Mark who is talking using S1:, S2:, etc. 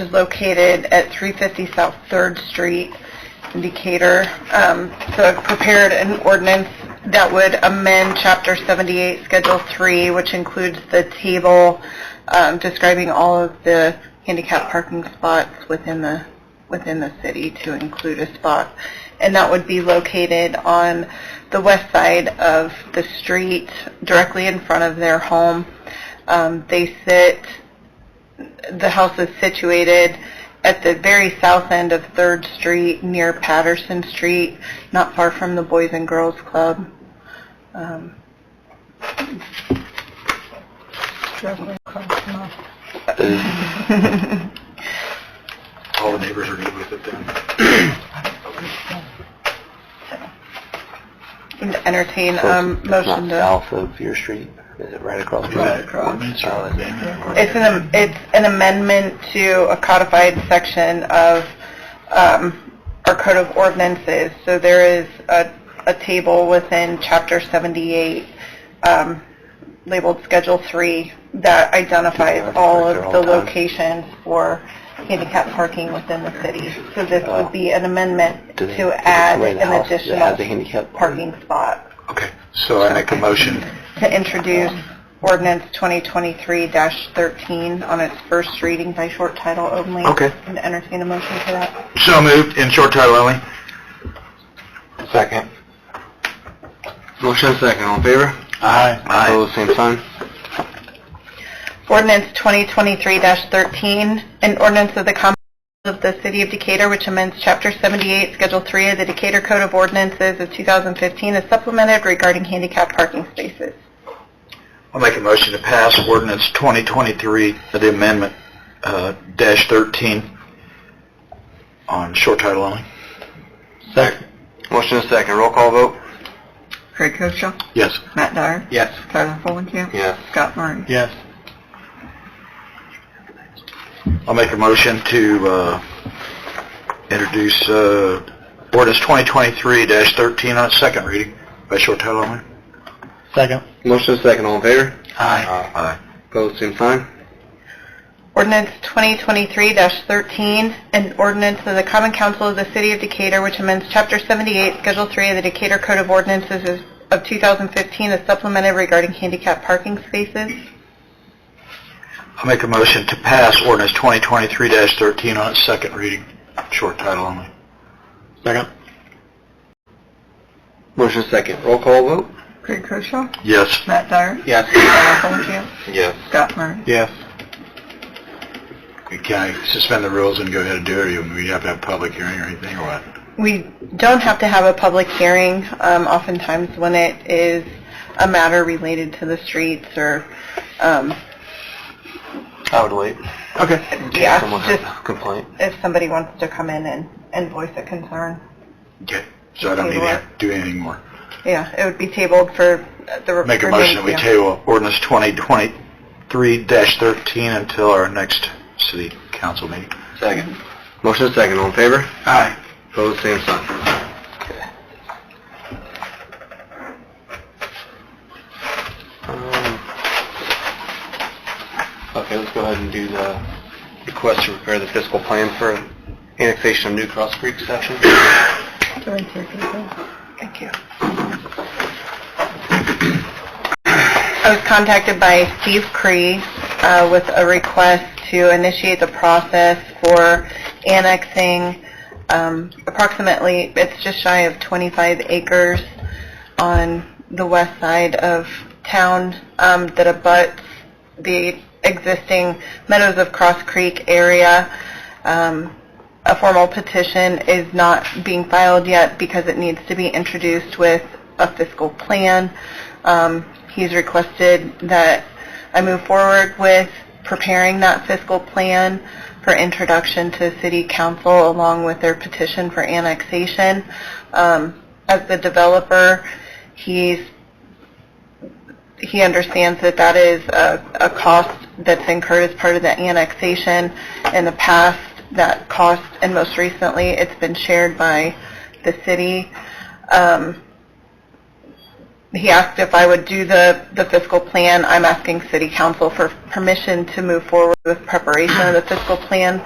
S1: is located at 350 South Third Street in Decatur. Um, So I've prepared an ordinance that would amend Chapter 78, Schedule 3, which includes the table um, describing all of the handicap parking spots within the, within the city to include a spot. And that would be located on the west side of the street, directly in front of their home. Um, They sit the house is situated at the very south end of Third Street, near Patterson Street, not far from the Boys and Girls Club. Um,
S2: All the neighbors are good with it then?
S1: and Entertain
S3: So
S1: um,
S3: it's-
S1: motion
S3: It's
S1: to.
S3: not south of your street, is it right across? from
S2: Right
S3: it?
S2: across. Ordinance or amendment? or-
S1: It's an am- it's an amendment to a codified section of um, our code of ordinances. So there is a, a table within Chapter 78 um, labeled Schedule 3 that identifies all of the locations for handicap parking within the city. So this would be an amendment
S3: Do they-
S1: to
S3: is it
S1: add
S3: somebody in the
S1: an
S3: house that has a
S1: additional
S3: handicap
S1: parking spot
S2: Okay, so I make a motion,
S1: to introduce ordinance 2023-13 on its first reading by short title only.
S2: Okay.
S1: And entertain a motion for that.
S2: so moved, in short title only. Second.
S3: Motion second, all in favor?
S2: Aye.
S3: Opposed, same sign?
S1: Ordinance 2023-13, an ordinance of the Commonwealth of the City of Decatur which amends Chapter 78, Schedule 3 of the Decatur Code of Ordinances of 2015 as supplemented regarding handicap parking spaces.
S2: I'll make a motion to pass ordinance 2023, the amendment, uh, dash 13 on short title only.
S3: Second. Motion second, roll call vote?
S1: Craig Koshaw,
S2: Yes.
S1: Matt Dyer,
S2: Yes.
S1: Tyler Fulenkamp,
S3: Yes.
S1: Scott Murray.
S2: Yes. I'll make a motion to uh, introduce uh, ordinance 2023-13 on its second reading by short title only.
S4: Second.
S3: Motion second, all in favor?
S2: Aye. Aye.
S3: Opposed, same sign?
S1: Ordinance 2023-13, an ordinance of the Common Council of the City of Decatur which amends Chapter 78, Schedule 3 of the Decatur Code of Ordinances is- of 2015 as supplemented regarding handicap parking spaces.
S2: I'll make a motion to pass ordinance 2023-13 on its second reading, short title only.
S4: Second.
S3: Motion second, roll call vote?
S1: Craig Koshaw,
S2: Yes.
S1: Matt Dyer,
S3: Yes. Yes.
S1: Scott Murray.
S4: Yes.
S2: Can I suspend the rules and go ahead and do it, or do we have to have public hearing or anything, or what?
S1: We don't have to have a public hearing, um, oftentimes when it is a matter related to the streets or, um,
S3: I would wait.
S2: Okay.
S1: yeah,
S3: Someone has
S1: just
S3: a complaint.
S1: if somebody wants to come in and and voice a concern.
S2: Okay, so I don't need to do anything more.
S1: Yeah, it would be tabled for the...
S2: Make a
S1: remaining-
S2: motion that we
S1: yeah.
S2: table ordinance 2023-13 until our next city council meeting.
S3: Second. Motion second, all in favor?
S2: Aye.
S3: Opposed, same sign? Um, Okay, let's go ahead and do the request to prepare the fiscal plan for annexation of New Cross Creek section.
S1: Thank you. I was contacted by Steve Cree uh, with a request to initiate the process for annexing um, approximately, it's just shy of 25 acres on the west side of town um, that abuts the existing Meadows of Cross Creek area. Um, a formal petition is not being filed yet because it needs to be introduced with a fiscal plan. Um, He's requested that I move forward with preparing that fiscal plan for introduction to city council along with their petition for annexation. Um, As the developer, he's he understands that that is a, a cost that's incurred as part of the annexation. In the past, that cost, and most recently, it's been shared by the city. Um, he asked if I would do the, the fiscal plan. I'm asking city council for permission to move forward with preparation of the fiscal plan.